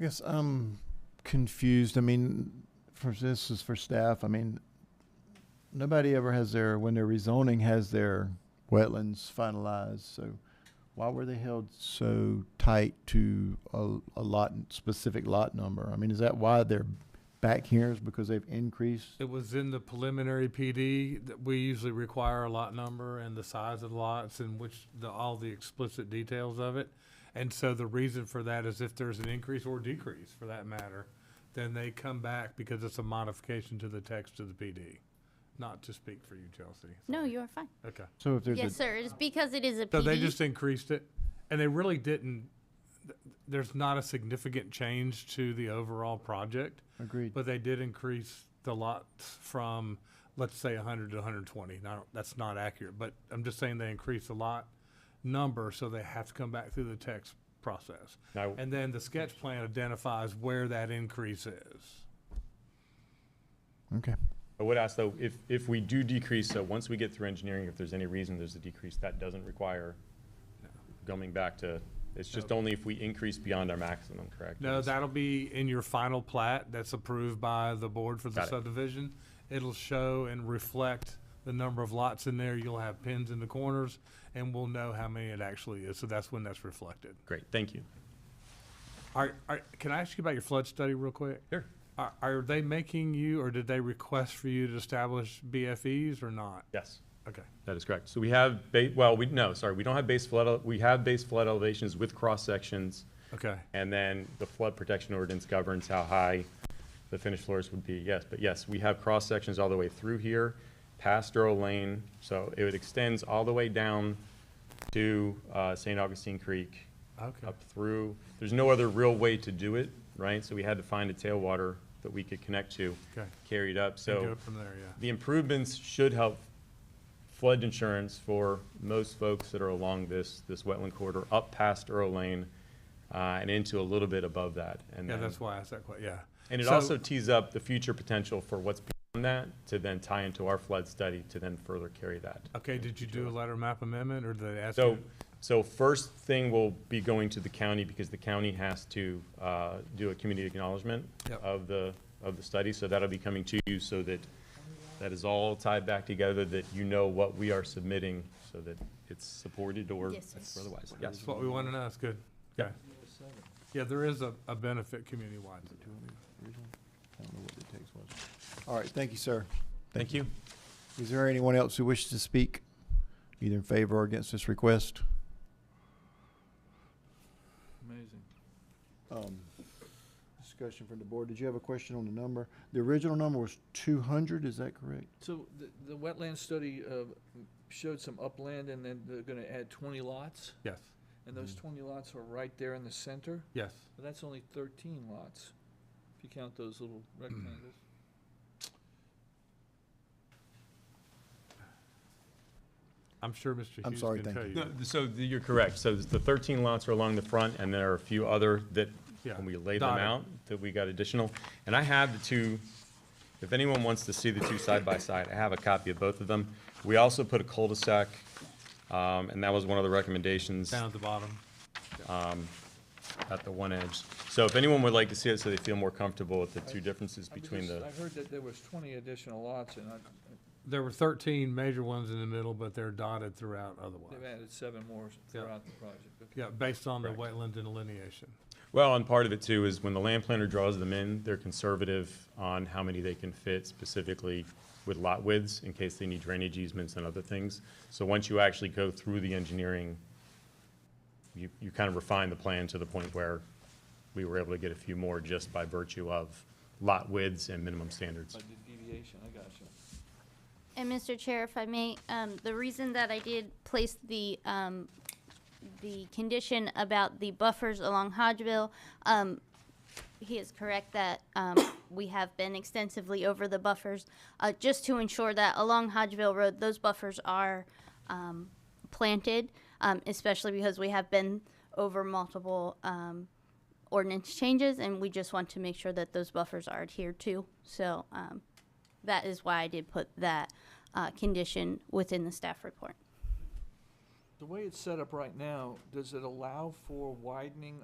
I guess I'm confused. I mean, for this is for staff. I mean, nobody ever has their, when they're rezoning, has their wetlands finalized. So why were they held so tight to a, a lot, specific lot number? I mean, is that why they're back here is because they've increased? It was in the preliminary PD that we usually require a lot number and the size of the lots and which the, all the explicit details of it. And so the reason for that is if there's an increase or decrease for that matter, then they come back because it's a modification to the text of the PD. Not to speak for you, Chelsea. No, sorry. you are fine. Okay. So if there's a, Yes, sir. It's because it is a So they PD. just increased it and they really didn't, th- there's not a significant change to the overall project. agreed, But they did increase the lots from, let's say, hundred to hundred and twenty. Now, that's not accurate, but I'm just saying they increased the lot number, so they have to come back through the text process. Now, And then the sketch plan identifies where that increase is. okay. I would ask though, if, if we do decrease, so once we get through engineering, if there's any reason there's a decrease, that doesn't require coming back to, it's just only if we increase beyond our maximum, correct? No, that'll be in your final plat that's approved by the board for the Got it. subdivision. It'll show and reflect the number of lots in there. You'll have pins in the corners, and we'll know how many it actually is, so that's when that's reflected. Great, thank you. Are, are, can I ask you about your flood study real quick? Sure. Are, are they making you, or did they request for you to establish BFEs or not? Yes. Okay. That is correct. So we have, ba- well, we, no, sorry, we don't have base flood, ele- we have base flood elevations with cross-sections, Okay. and then the flood protection ordinance governs how high the finished floors would be, yes. But yes, we have cross-sections all the way through here, past Earl Lane, so it extends all the way down to uh, St. Augustine Creek, Okay. up through. There's no other real way to do it, right? So we had to find a tailwater that we could connect to, Okay. carry it up, so. And go from there, yeah. The improvements should help flood insurance for most folks that are along this, this wetland corridor, up past Earl Lane, uh, and into a little bit above that. And Yeah, then- that's why I asked that question, yeah. And it So- also tees up the future potential for what's beyond that, to then tie into our flood study, to then further carry that. Okay, did you do a letter map amendment, or did they ask So, you? so first thing will be going to the county, because the county has to uh, do a community acknowledgement Yep. of the, of the study, so that'll be coming to you, so that, that is all tied back together, that you know what we are submitting, so that it's supported or Yes, sir. otherwise. Yes, That's what we want to know, that's good. Okay. Yeah, there is a, a benefit community-wide. I don't know what the text was. All right, thank you, sir. thank you. Is there anyone else who wishes to speak, either in favor or against this request? Amazing. Um, Discussion from the board. Did you have a question on the number? The original number was two hundred, is that correct? So the, the wetland study uh, showed some upland and then they're gonna add twenty lots? Yes, And those Mm-hmm. twenty lots are right there in the center? yes. But that's only thirteen lots, if you count those little rectangles. I'm sure Mr. I'm Hughes sorry, can thank tell you. you. No, that. th- So th- you're correct. So the 13 lots are along the front, and there are a few other that, Yeah, when we lay them dotted. out, that we got additional. And I have the two, if anyone wants to see the two side by side, I have a copy of both of them. We also put a cul-de-sac, um, and that was one of the recommendations Down at the bottom. at the one edge. So if anyone would like to see it, so they feel more comfortable with the two differences I between just- the, I heard that there was twenty additional lots and I, There were thirteen major ones in the middle, but they're dotted throughout they've otherwise. added seven more throughout the project. Okay. Yeah, based on the Correct. wetland delineation. well, and part of it too is when the land planner draws them in, they're conservative on how many they can fit specifically with lot widths, in case they need drainage easements and other things. So once you actually go through the engineering, you, you kind of refine the plan to the point where we were able to get a few more just by virtue of lot widths and minimum standards. By the deviation, I got you. And Mr. Chair, if I may, um, the reason that I did place the, um, the condition about the buffers along Hodgeville, um, he is correct that, um, we have been extensively over the buffers, uh, just to ensure that along Hodgeville Road, those buffers are, um, planted, um, especially because we have been over multiple, um, ordinance changes, and we just want to make sure that those buffers are adhered to, so, um, that is why I did put that uh, condition within the staff report. The way it's set up right now, does it allow for widening